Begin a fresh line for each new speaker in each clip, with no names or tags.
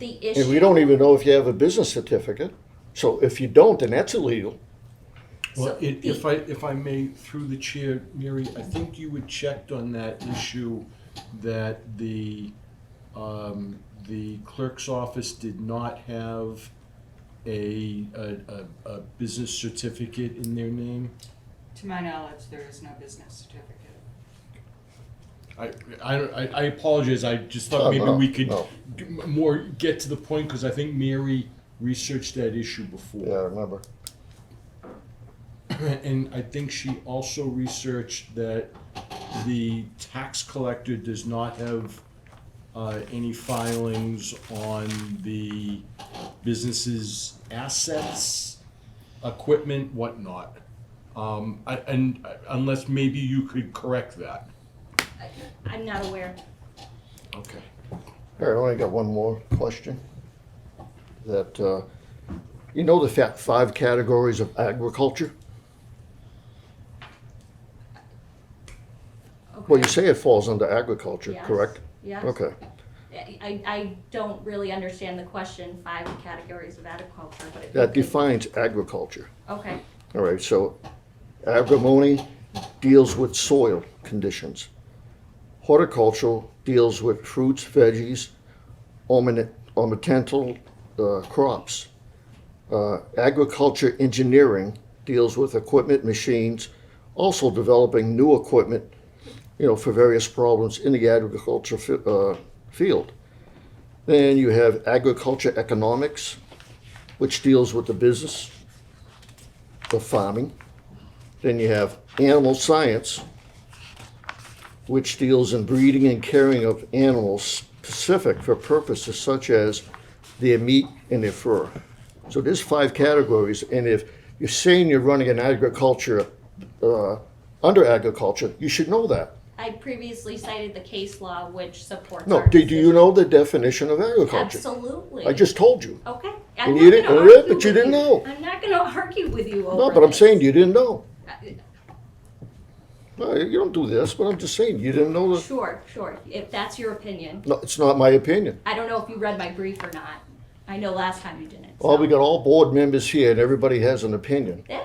the
And we
issue,
don't even know if you have a business certificate. So if you don't, then that's illegal.
So
Well, it-
the-
if I, if I may, through the chair, Mary, I think you had checked on that issue that the, um, the clerk's office did not have a, a, a, a business certificate in their name.
To my knowledge, there is no business certificate.
I, I, don't- I I apologize, I just thought
Oh,
maybe
no,
we could
no.
g- m- more, get to the point, because I think Mary researched that issue before.
Yeah, I remember.
And I think she also researched that the tax collector does not have uh, any filings on the business's assets, equipment, whatnot. Um, I- And uh, unless maybe you could correct that.
I'm not aware.
Okay.
All right, I only got one more question. That, uh, you know the fa- five categories of agriculture? Well, you
Okay.
say it falls under agriculture,
Yes,
correct?
Yes.
Okay,
I, I don't really understand the question, five categories of agriculture, but it.
that defines agriculture.
Okay,
All right, so agrimony deals with soil conditions. Horticultural deals with fruits, veggies, ornament- ornamental uh, crops. Uh, Agriculture engineering deals with equipment, machines, also developing new equipment, you know, for various problems in the agriculture fi- uh, field. Then you have agriculture economics, which deals with the business of farming. Then you have animal science, which deals in breeding and caring of animals specific for purposes such as their meat and their fur. So there's five categories, and if you're saying you're running an agriculture, uh, under agriculture, you should know that.
I previously cited the case law which supports.
No,
our
do, do you
decision.
know the definition of agriculture?
Absolutely.
I just told you.
Okay.
And
I'm
you
not
didn't-
gonna
yeah,
argue
but you
with
didn't know.
I'm not gonna argue with you over
No, but I'm
this.
saying you didn't know.
Uh,
No, you don't do this, but I'm just saying you didn't know the,
Uh, Sure, sure, if that's your opinion.
no, it's not my opinion.
I don't know if you read my brief or not. I know last time you didn't.
Well, we
so.
got all board members here and everybody has an opinion,
Yeah,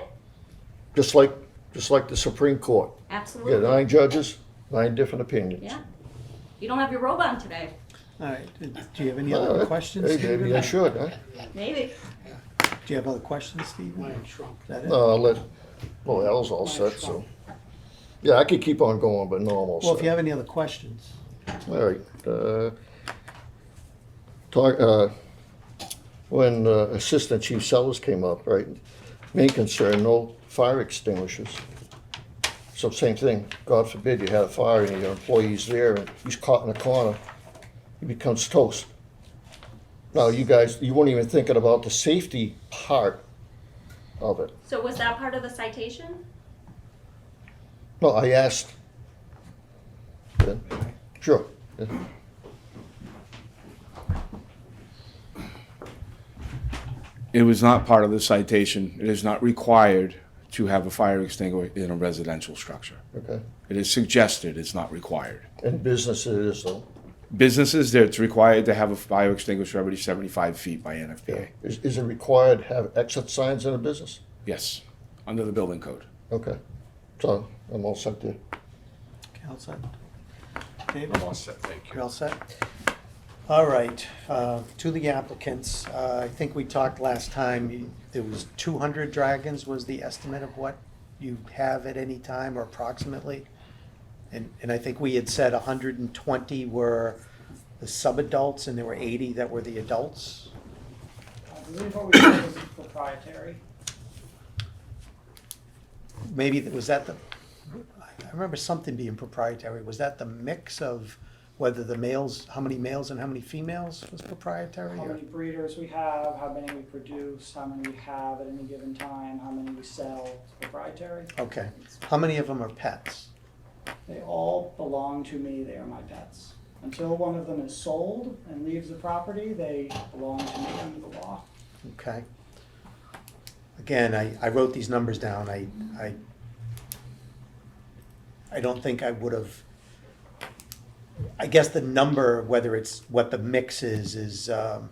just like, just like the Supreme Court. You got
Absolutely,
nine judges, nine different opinions.
yeah. You don't have your robe on today,
All right, do you have any
All
other
right.
questions,
Hey,
Stephen?
maybe I should, huh?
maybe.
Do you have other questions, Stephen? Is that it?
No, I'll let, well, Al's all set, so. Yeah, I could keep on going, but no, I'm all set.
Well, if you have any other questions,
All right. uh, Talk, uh, when uh, Assistant Chief Sellers came up, right, main concern, no fire extinguishers. So same thing, God forbid you had a fire and your employee's there and he's caught in a corner, he becomes toast. Now, you guys, you weren't even thinking about the safety part of it.
So was that part of the citation?
No, I asked. Yeah, Sure. yeah.
It was not part of the citation. It is not required to have a fire extinguisher in a residential structure.
Okay.
It is suggested, it's not required.
In business it is though.
Businesses, there, it's required to have a fire extinguisher every seventy-five feet by NFPA.
Is, is it required to have exit signs in a business?
Yes, under the building code.
Okay, so I'm all set there.
Counsel? David,
I'm all set, thank you.
you're all set? All right, uh, to the applicants, uh, I think we talked last time, you- there was 200 dragons was the estimate of what you have at any time or approximately? And, and I think we had said 120 were the sub-adults and there were 80 that were the adults?
I believe what we said was proprietary.
maybe, th- was that the, I remember something being proprietary, was that the mix of whether the males, how many males and how many females was proprietary?
How
or-
many breeders we have, how many we produce, how many we have at any given time, how many we sell, it's proprietary.
Okay, how many of them are pets?
They all belong to me, they are my pets. Until one of them is sold and leaves the property, they belong to me under the law.
Okay. Again, I, I wrote these numbers down, I, I, I don't think I would have, I guess the number, whether it's what the mix is, is, um,